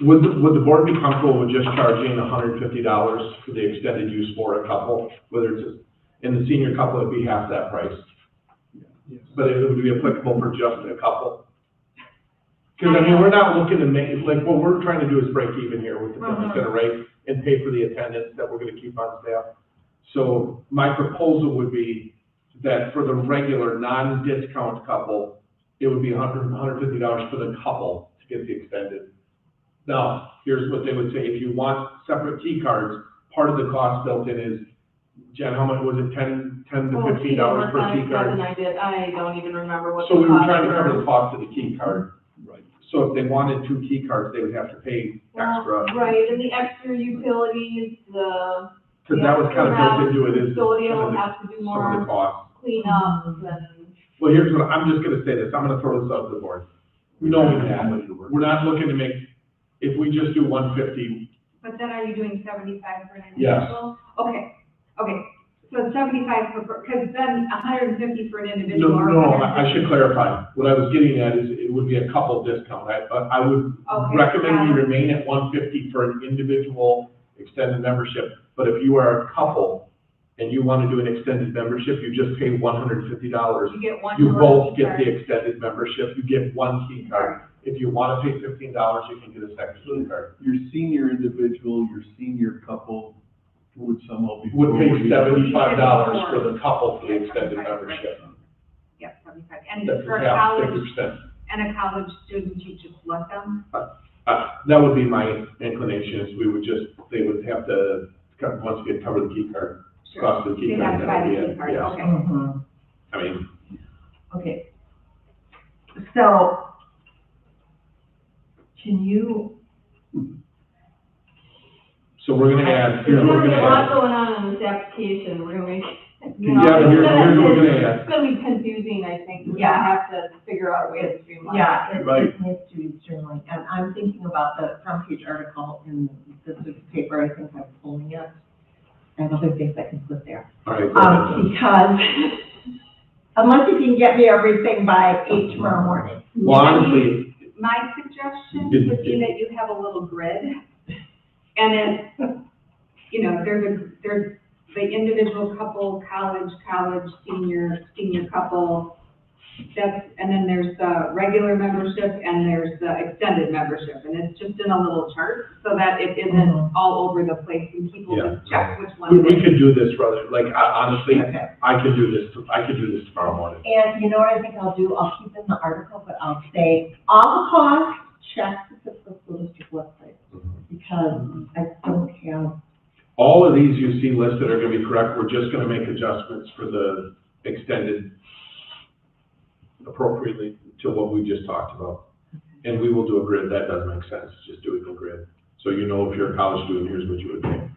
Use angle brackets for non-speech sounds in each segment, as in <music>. Would, the- would the board be comfortable with just charging hundred and fifty dollars for the extended use for a couple, whether it's, a- in the senior couple, it'd be half that price? But it would be applicable for just a couple? Because I mean, we're not looking to make, like, what we're trying to do is break even here with the fifty Mhm. cent rate and pay for the attendance that we're gonna keep on staff. So my proposal would be that for the regular, non-discount couple, it would be hundred, hundred and fifty dollars for the couple to get the extended. Now, here's what they would say, if you want separate key cards, part of the cost built in is, Jen, how much was it, ten, ten to Oh, fifteen gee, dollars per what size key card? present I did, I don't even remember what. So we were the trying to cost cover were. the cost of the key card. Right. So if they wanted two key cards, they would have to pay extra, Well, Right, and the extra utilities, the because that was kind of built into it, is custodial some of the- has to do some of the more cost. cleanups and. Well, here's what, I'm just gonna say this, I'm gonna throw this out to the board. Knowing that, we're not looking to make, if we just do one fifty, But then are you doing seventy-five for an Yes. individual? Okay, okay, so seventy-five for, because then hundred and fifty for an no, individual. or no, I I 150. should clarify. What I was getting at is it would be a couple discount, I, but I would Okay, recommend got we it. remain at one fifty for an individual extended membership, but if you are a couple and you want to do an extended membership, you just pay one hundred and fifty dollars. You get one. You for both each get the card. extended membership, you get one key card. If you want to pay fifteen dollars, you can get a second key card. Your senior individual, your senior couple would somehow be. Would pay seventy-five dollars Four. for the couple for the Yeah, extended 75, right. membership. Yep, seventy-five, and That's for a half, college, fifty percent. and a college student, you just let them, Uh, that would be my inclination, is we would just, they would have to, co- once again, cover the key card, sure. cost of the They key have card, that to buy would be the key it, card, yeah. okay. Mhm, I mean, Okay. So can you, So we're gonna add, here's There's what we're gonna be a gonna lot add. going on in this application, we're gonna make. you know, Yeah, but here's, it's gonna- here's what we're gonna add. It's gonna be confusing, I think, we're Yeah. gonna have to figure out a way to streamline. yeah, it Right. it needs to be streamlined. And I'm thinking about the front page article in this paper, I think I'm pulling it. I have other things I can put there. All right, go ahead, Um, because unless you can get me everything by eight tomorrow morning. Jen. Well, honestly, My suggestion would be that you have a little grid, and then, you know, there's a, there's the individual couple, college, college, senior, senior couple, that's, and then there's the regular membership, and there's the extended membership, and it's just in a little chart, so that it Mhm. isn't all over the place, and people Mm-hmm. Yeah. just check which we, one. we could do this, rather, like, I, honestly, Okay. I could do this, t- I could do this tomorrow morning. And you know what I think I'll do? I'll keep in the article, but I'll say, all the costs, check the fiscal school district website. Because I don't have, All of these you see listed are gonna be correct, we're just gonna make adjustments for the extended appropriately to what we just talked about. And we will do a grid, that does make sense, just do it in a grid. So you know if you're a college student, here's what you would pay.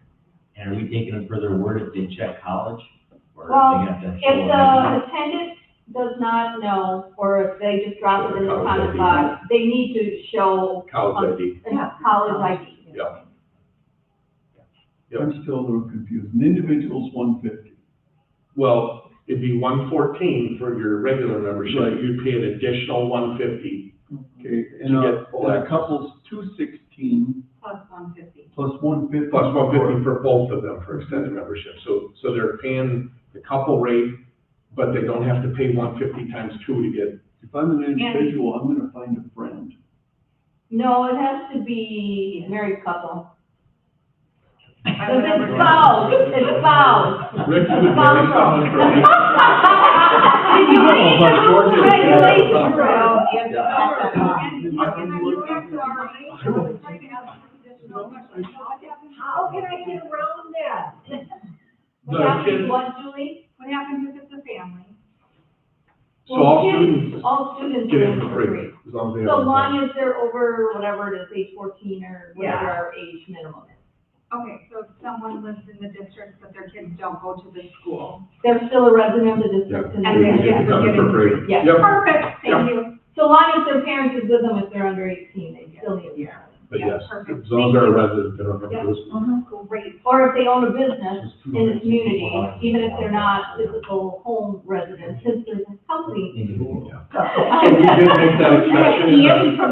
And are we taking a further word if they check college? or if Well, they have to show If a- the attendant does not know, or if they just drop it in the College comment ID. box, they need to show College ID, a college ID. yeah. I'm still a little confused. An individual's one fifty. Well, it'd be one fourteen for your regular membership, Right. you'd pay an additional one fifty. Okay, To and a, get full and a access. couple's two sixteen Plus one fifty. plus one fifty. Plus one fifty for both of them for extended membership, so, so they're paying the couple rate, but they don't have to pay one fifty times two to get. If I'm an individual, I'm gonna find a friend. No, it has to be married couple. I Because remember it's spouse, it's spouse. Rick, you would marry someone for me. <laughs> Oh, Did you read the rules and regulations, bro? And, you know, and I go back to our, I was trying to ask additional questions. What happens- how can I get around that? What happened to what, Julie? What happens if it's a family? So all Well, students All students get are in in for free, free. as long as they have. So a- long as they're over whatever it is, age fourteen or whatever our age minimum is. Okay, so if someone lives in the district, but their kids don't go to the school. They're still a resident of the district. and Yeah, And they they're- then get yeah, it we're done for free. getting- Yeah. Yep, Perfect, thank you. So long as their parents is with them, if they're under eighteen, they still need a parent. but Yeah, yes, perfect. as long as Thank they're a you. resident, they don't have to lose. Great. Or if they own a business, It's two in the hundred sixty community, dollars. even if they're not physical home residents, since there's a company. Individual. <laughs> And we did make that exception. in the- Ian from